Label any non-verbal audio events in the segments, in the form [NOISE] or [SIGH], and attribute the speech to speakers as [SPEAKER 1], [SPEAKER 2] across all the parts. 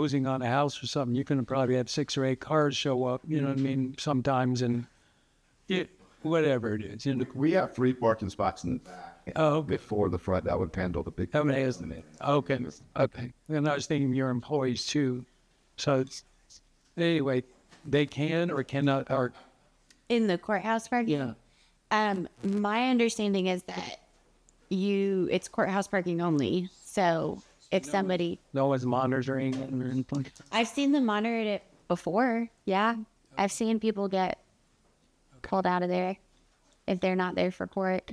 [SPEAKER 1] closing on a house or something, you can probably have six or eight cars show up, you know what I
[SPEAKER 2] Mm-hmm.
[SPEAKER 1] mean, sometimes and it, whatever it is. you know.
[SPEAKER 3] We have three parking spots in the back.
[SPEAKER 1] Oh, okay.
[SPEAKER 3] Before the front, that would handle the big.
[SPEAKER 1] How many is Okay, okay. And I was thinking your employees too. So it's, anyway, they can or cannot, or,
[SPEAKER 4] in the courthouse parking.
[SPEAKER 1] Yeah.
[SPEAKER 4] Um, my understanding is that you it's courthouse parking only. So if somebody
[SPEAKER 1] no one's monitoring it or anything.
[SPEAKER 4] I've seen them monitor it before. Yeah. I've seen people get pulled out of there if they're not there for court.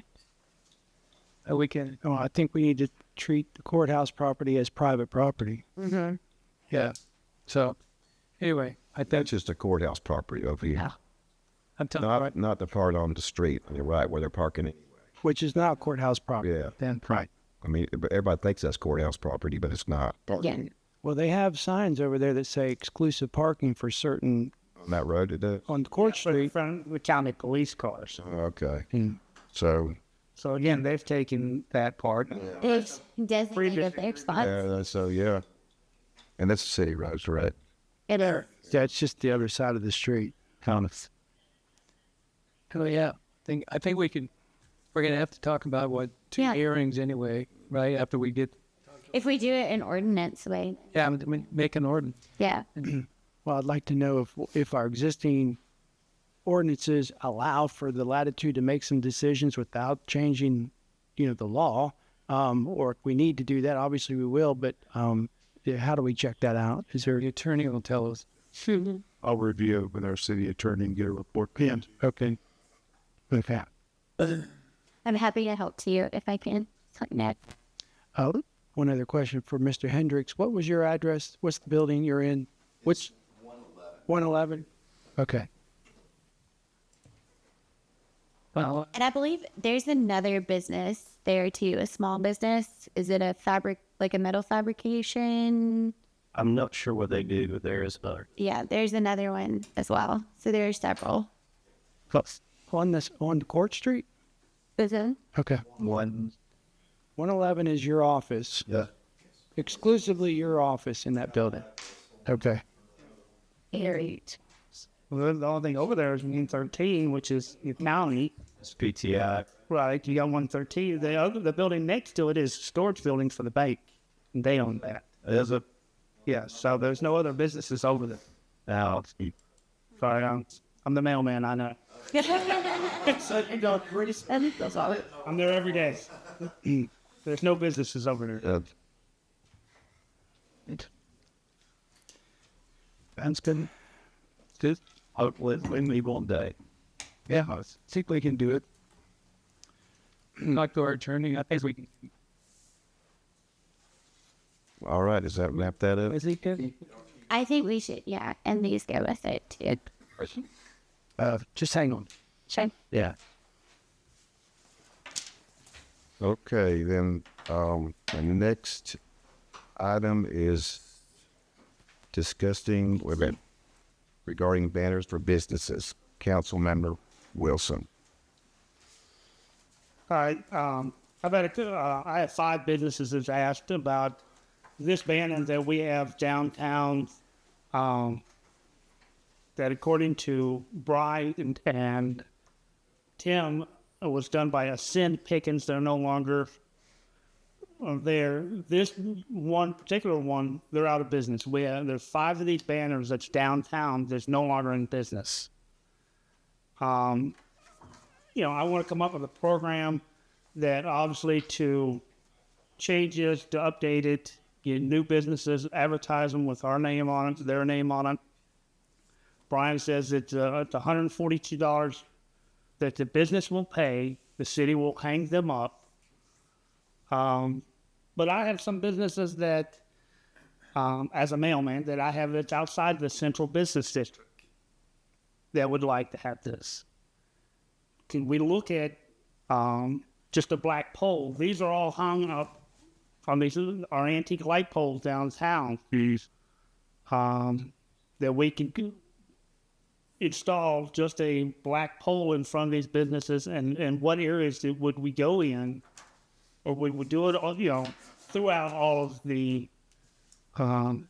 [SPEAKER 1] Uh, We can,
[SPEAKER 2] Oh, I think we need to treat the courthouse property as private property.
[SPEAKER 1] yeah. So anyway, I
[SPEAKER 5] That's
[SPEAKER 1] think,
[SPEAKER 5] just a courthouse property over here.
[SPEAKER 1] I'm telling you,
[SPEAKER 5] Not, not the part on the street, on the right, where they're parking it.
[SPEAKER 2] Which is not courthouse property.
[SPEAKER 5] Yeah.
[SPEAKER 2] Then, right.
[SPEAKER 5] I mean, but everybody thinks that's courthouse property, but it's not.
[SPEAKER 4] Yeah.
[SPEAKER 2] Well, they have signs over there that say exclusive parking for certain
[SPEAKER 5] On that road, it does.
[SPEAKER 2] on Court
[SPEAKER 6] but in
[SPEAKER 2] Street.
[SPEAKER 6] front of the county police cars.
[SPEAKER 5] Okay.
[SPEAKER 2] Hmm.
[SPEAKER 5] So,
[SPEAKER 6] So
[SPEAKER 2] Mm.
[SPEAKER 6] again, they've taken that part.
[SPEAKER 4] It's designated their spots.
[SPEAKER 5] yeah, so, yeah. And that's the city roads, right?
[SPEAKER 4] It is.
[SPEAKER 2] That's just the other side of the street.
[SPEAKER 5] Kind of.
[SPEAKER 1] oh, yeah, I think, I think we can, we're going to have to talk about what, two
[SPEAKER 4] Yeah.
[SPEAKER 1] hearings anyway, right? After we get,
[SPEAKER 4] If we do it in ordinance way.
[SPEAKER 1] yeah, I mean, make an ordinance.
[SPEAKER 4] Yeah.
[SPEAKER 2] Well, I'd like to know if, if our existing ordinances allow for the latitude to make some decisions without changing, you know, the law. Um, or if we need to do that, obviously we will, but, um, yeah, how do we check that out? Is there,
[SPEAKER 1] The attorney will tell us.
[SPEAKER 7] I'll review it with our city attorney and get a report. Yeah.
[SPEAKER 2] okay. Okay.
[SPEAKER 4] I'm happy to help to you if I can. It's like, no.
[SPEAKER 2] Uh, one other question for Mr. Hendricks. What was your address? What's the building you're in? What's 111? Okay.
[SPEAKER 1] Well,
[SPEAKER 4] And I believe there's another business there too, a small business. Is it a fabric, like a metal fabrication?
[SPEAKER 8] I'm not sure what they do, but there is another.
[SPEAKER 4] Yeah, there's another one as well. So there are several.
[SPEAKER 8] Plus
[SPEAKER 2] On this, on Court Street? Okay.
[SPEAKER 8] one.
[SPEAKER 2] 111 is your office,
[SPEAKER 8] Yeah.
[SPEAKER 2] exclusively your office in that building. Okay.
[SPEAKER 4] Great.
[SPEAKER 6] Well, the only thing over there is one thirteen, which is the county.
[SPEAKER 8] It's PTI.
[SPEAKER 6] Right, you got one thirteen. The other, the building next to it is storage building for the bank. and They own that.
[SPEAKER 8] There's a
[SPEAKER 6] Yeah, so there's no other businesses over there.
[SPEAKER 8] now.
[SPEAKER 6] Sorry, I'm, I'm the mailman.
[SPEAKER 8] [LAUGHS]
[SPEAKER 6] I know. I'm there every day. [CLEARS THROAT] there's no businesses over there.
[SPEAKER 8] That's good. Just hopefully it's with me one day.
[SPEAKER 2] Yeah. I think we can do it.
[SPEAKER 1] talk to our attorney, I think we can.
[SPEAKER 5] All right, does that wrap that up?
[SPEAKER 1] he good?
[SPEAKER 4] I think we should, yeah, and these go with it too.
[SPEAKER 2] Uh, just hang on.
[SPEAKER 4] Sure.
[SPEAKER 8] Yeah.
[SPEAKER 5] Okay, then, um, the next item is discussing, wait a minute, regarding banners for businesses. Councilmember Wilson.
[SPEAKER 6] All right. Um, I've had a, uh, I have five businesses that's asked about this banner that we have downtown. Um, that according to Brian and, and Tim it was done by Ascend Pickens. They're no longer uh, there. This one particular one, they're out of business. We have, there's five of these banners that's downtown that's no longer in business. Um, you know, I want to come up with a program that obviously to change it, to update it, get new businesses, advertise them with our name on it, their name on it. Brian says it's, uh, it's $142 that the business will pay, the city will hang them up. Um, but I have some businesses that, um, as a mailman, that I have that's outside the central business district that would like to have this can we look at um, just a black pole? These are all hung up on these are antique light poles downtown. Um, that we can g- install just a black pole in front of these businesses, and and what areas that would we go in, or we would do it all you know throughout all of the um,